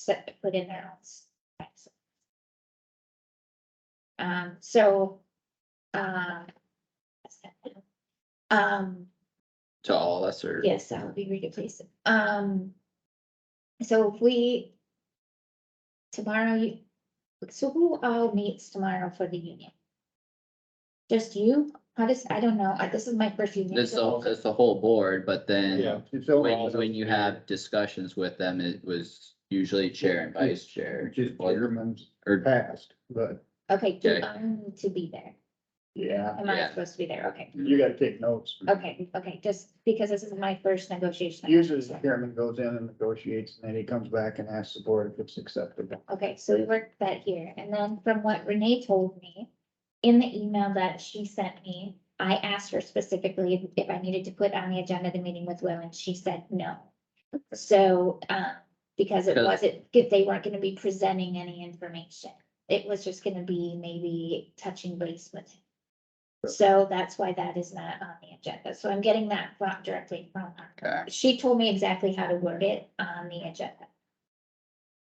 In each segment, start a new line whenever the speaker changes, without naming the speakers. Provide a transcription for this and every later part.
set to put in their house. Um, so, uh. Um,
to all us or?
yes, that would be read please. Um. So if we. Tomorrow, you, so who all meets tomorrow for the union? Just you? How does, I don't know. I- This is my first union.
It's the,
so-
it's the whole board, but
Yeah.
then
it's
when,
overall-
when you have discussions with them, it was usually chair and vice chair.
Which is Peterman's
Or,
past, but
Okay, do
Okay.
I need to be there?
yeah,
Am I
Yeah.
supposed to be there? Okay,
you gotta take notes.
okay, okay, just because this is my first negotiation.
Usually the chairman goes in and negotiates and then he comes back and asks the board if it's acceptable.
Okay, so we worked that here, and then from what Renee told me, in the email that she sent me, I asked her specifically if I needed to put on the agenda the meeting with Will, and she said no. So, uh, because it
Because-
wasn't, if they weren't gonna be presenting any information, it was just gonna be maybe touching base with him. So that's why that is not on the agenda, so I'm getting that from directly from her
okay,
she told me exactly how to word it on the agenda.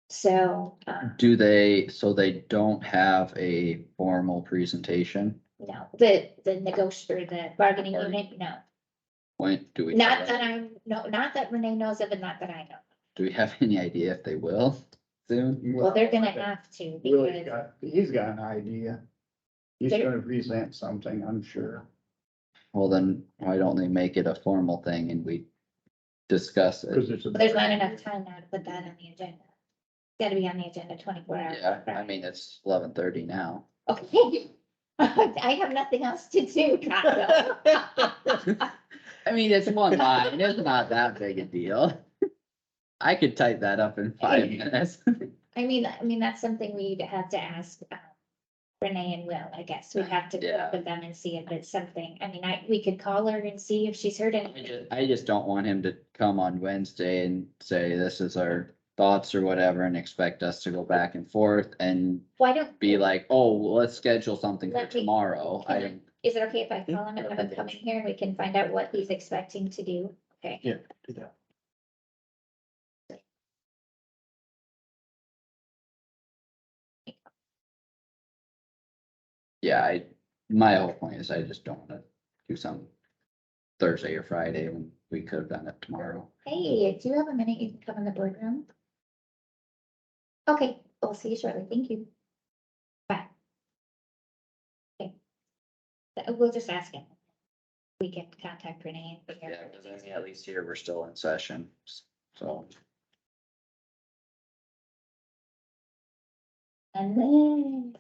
So, uh,
do they, so they don't have a formal presentation?
no, the, the negotiator, the bargaining unit, no,
When do we?
not that I'm, no, not that Renee knows of and not that I know.
Do we have any idea if they will soon?
Well, they're gonna have to
Willie's
because,
got, he's got an idea. He's
They're-
gonna present something, I'm sure.
Well, then why don't they make it a formal thing and we discuss it?
Cause it's. a-
but there's not enough time now to put that on the agenda. Gotta be on the agenda twenty-four hours.
Yeah, I mean, it's eleven thirty now.
Okay, I have nothing else to do, Taco.
I mean, it's one line, it's not that big a deal. I could type that up in five minutes.
I mean, I mean, that's something we'd have to ask um, Renee and Will, I guess. We'd have to
Yeah.
talk with them and see if it's something. I mean, I, we could call her and see if she's heard
I
anything.
just, I just don't want him to come on Wednesday and say, this is our thoughts or whatever, and expect us to go back and forth and
Why don't,
be like, oh, well, let's schedule something for
Let me-
tomorrow. I,
is it okay if I call him and have him
Yeah.
come in here? We can find out what he's expecting to do. Okay.
Yeah, do that.
yeah, I, my whole point is I just don't wanna do something Thursday or Friday when we could have done it tomorrow.
Hey, do you have a minute? You can come in the boardroom. Okay, we'll see you shortly. Thank you. Bye. Okay. Uh, We'll just ask him. We can contact Renee. and figure out
Yeah,
what
cause
he's-
I mean, at least here, we're still in session, so.
And then.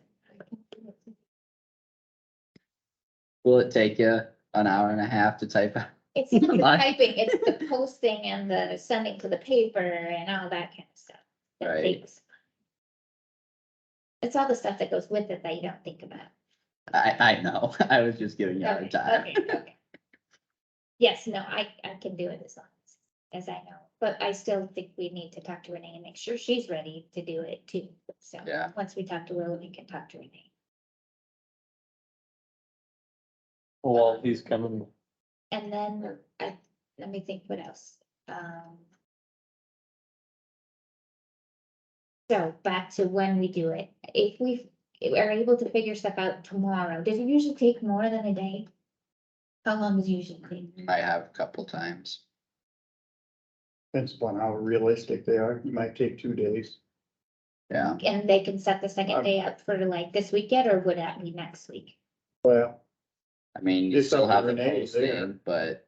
Will it take you an hour and a half to type out?
It's not the
Mine.
typing, it's the posting and the sending to the paper and all that kind of stuff. that
Right.
takes- It's all the stuff that goes with it that you don't think about.
I, I know, I was just giving you a
Okay,
hard time.
okay, okay. Yes, no, I, I can do it as long as, as I know, but I still think we need to talk to Renee and make sure she's ready to do it too. So,
Yeah.
once we talk to Will, we can talk to Renee.
Well, he's coming,
And then, I, let me think what else, um. So back to when we do it, if we are able to figure stuff out tomorrow, does it usually take more than a day? How long is it usually take?
I have a couple times.
Depends upon how realistic they are. It might take two days.
Yeah,
And they can set the second
Um,
day up for like this weekend or would that be next week?
Well,
I mean, you
It's
still
up to
have the
Renee there.
posting, but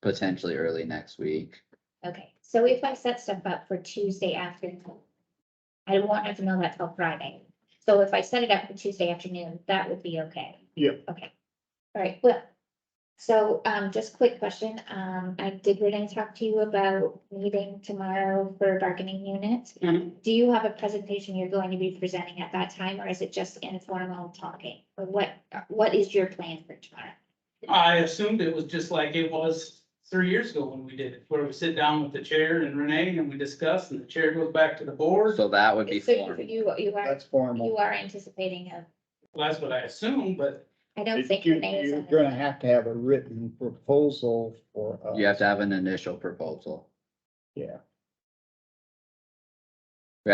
potentially early next week.
Okay, so if I set stuff up for Tuesday afternoon, I don't want her to know that till Friday. So if I set it up for Tuesday afternoon, that would be okay.
Yep.
Okay, all right, well, so, um, just quick question, um, I did Renee talk to you about meeting tomorrow for bargaining units.
Mhm.
Do you have a presentation you're going to be presenting at that time, or is it just informal talking? Or what, what is your plan for tomorrow?
I assumed it was just like it was three years ago when we did it, where we sit down with the chair and Renee and we discuss and the chair goes back to the board.
So that would be
So
formal.
You, you are,
that's
you
formal.
are anticipating a,
Well, That's what I assumed, but
I don't think
You-
Renee is.
You're
on
gonna
it.
have to have a written proposal for. uh, us.
You have to have an initial proposal.
Yeah.